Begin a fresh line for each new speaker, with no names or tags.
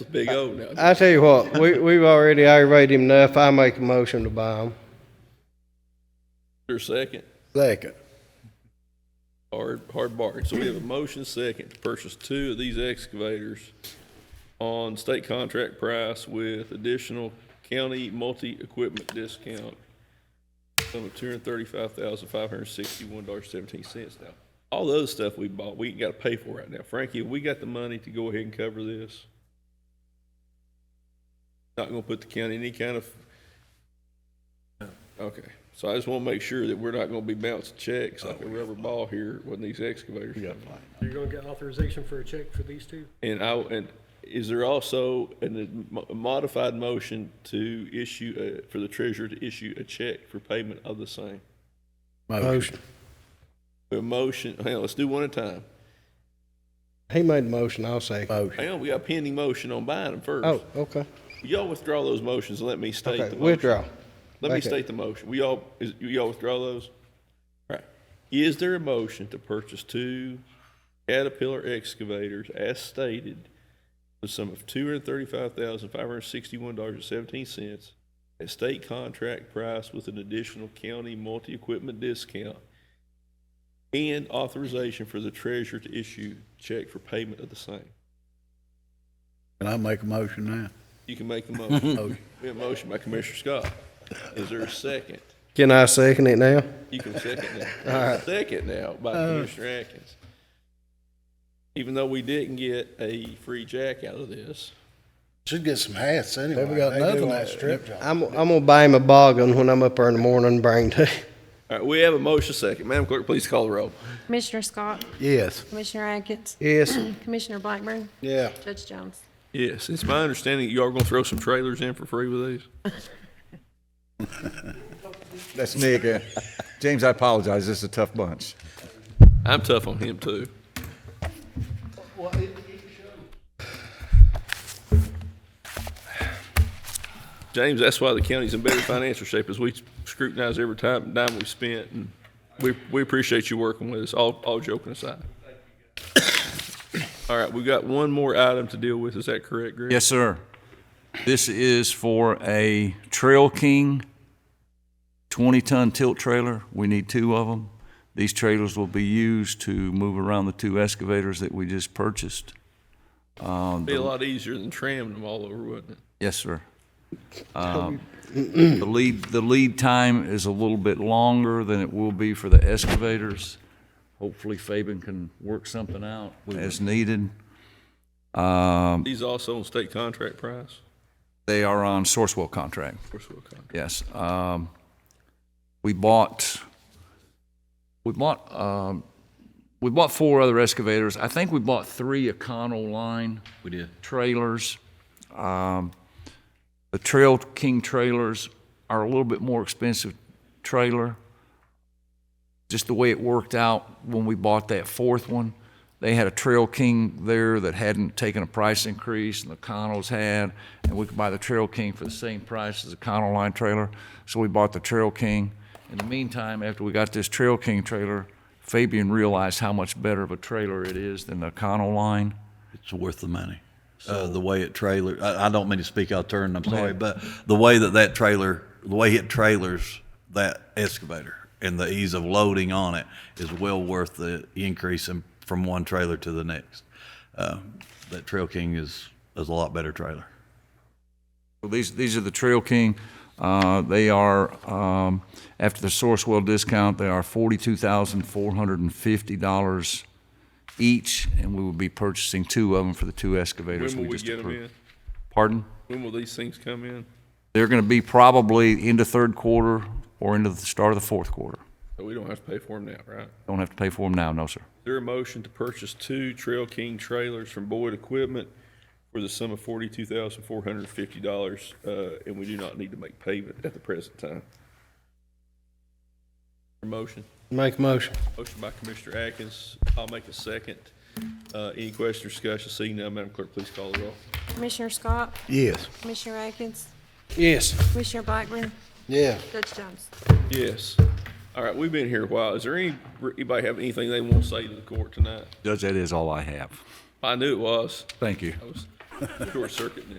It's a big O now.
I tell you what, we, we've already aggravated him enough. I make a motion to buy him.
Your second,
Second.
hard, hard bargain. So we have a motion second to purchase two of these excavators on state contract price with additional county multi-equipment discount. Sum of two hundred thirty-five thousand, five hundred sixty-one dollars, seventeen cents now. All the other stuff we bought, we ain't got to pay for right now. Frankie, have we got the money to go ahead and cover this? Not gonna put the county in any kind of Okay, so I just want to make sure that we're not going to be bouncing checks like a rubber ball here when these excavators.
You're gonna get authorization for a check for these two?
And I, and is there also an- a modified motion to issue, a- for the treasurer to issue a check for payment of the same?
Motion.
A motion, hang on, let's do one at a time.
He made the motion, I'll say.
Motion.
Hang on, we got a pending motion on buying them
Oh,
first.
okay.
Y'all withdraw those motions and let me state the
Okay,
motion.
withdraw.
Let me
Back up.
state the motion. We all, is, you all withdraw those? All right. Is there a motion to purchase two Caterpillar excavators as stated for the sum of two hundred thirty-five thousand, five hundred sixty-one dollars and seventeen cents at state contract price with an additional county multi-equipment discount and authorization for the treasurer to issue check for payment of the same?
Can I make a motion
You can make a motion.
now? Motion.
We have a motion by Commissioner Scott. Is there a second?
Can I second it now?
You can second now. Second now by Commissioner Atkins. Even though we didn't get a free jack out of this,
Should get some hats anyway.
They got
do
nothing
like
on
strip job.
I'm, I'm gonna buy him a boggin when I'm up there in the morning and bring to you.
all right, we have a motion second. Madam Clerk, please call the roll.
Commissioner Scott,
Yes.
Commissioner Atkins,
Yes,
Commissioner Blackburn,
Yeah.
Judge Jones.
Yes, it's my understanding you are going to throw some trailers in for free with these.
That's Nick. Uh, James, I apologize. This is a tough bunch.
I'm tough on him too. James, that's why the county's in better financial shape, is we scrutinize every time, dime we spent, and we, we appreciate you working with us, all, all joking aside. All right, we got one more item to deal with, is that correct, Greg?
Yes, sir. This is for a Trail King 20-ton tilt trailer. We need two of them. These trailers will be used to move around the two excavators that we just purchased. Um,
Be a lot easier than tramming them all over, wouldn't it?
Yes, sir. Um, The lead, the lead time is a little bit longer than it will be for the excavators. Hopefully Fabian can work something out as needed. Um,
These also on state contract price?
They are on Sourcewell contract.
Of course, we'll con-
Yes. um, We bought, we bought, um, we bought four other excavators. I think we bought three Econo line. We did. Trailers. Um, The Trail King trailers are a little bit more expensive trailer. Just the way it worked out when we bought that fourth one, they had a Trail King there that hadn't taken a price increase, and the Connells had, and we could buy the Trail King for the same price as the Connell line trailer, so we bought the Trail King. In the meantime, after we got this Trail King trailer, Fabian realized how much better of a trailer it is than the Connell line.
it's worth the money. Uh, the way it trailer, I, I don't mean to speak out of turn. I'm sorry, but the way that that trailer, the way it trailers that excavator and the ease of loading on it is well worth the increase in, from one trailer to the next. Uh, that Trail King is is a lot better trailer.
Well, These, these are the Trail King. Uh, They are, um, after the Sourcewell discount, they are $42,450 each, and we will be purchasing two of them for the two excavators
When will
we
we
just
get them
approved.
in?
Pardon?
When will these things come in?
They're going to be probably into third quarter or into the start of the fourth quarter.
So we don't have to pay for them now, right?
Don't have to pay for them now, no, sir.
Is there a motion to purchase two Trail King trailers from Boyd Equipment for the sum of forty-two thousand four hundred and fifty dollars, uh, and we do not need to make payment at the present time? Motion,
make a motion.
motion by Commissioner Atkins, I'll make a second. Uh, any question or discussion, seeing none, Madam Clerk, please call the roll.
Commissioner Scott,
Yes.
Commissioner Atkins,
Yes.
Commissioner Blackburn,
Yeah.
Judge Jones.
Yes. All right, we've been here a while. Is there any, anybody have anything they want to say to the court tonight?
Judge, that is all I have.
I knew it was.
Thank you.
I was short circuit now.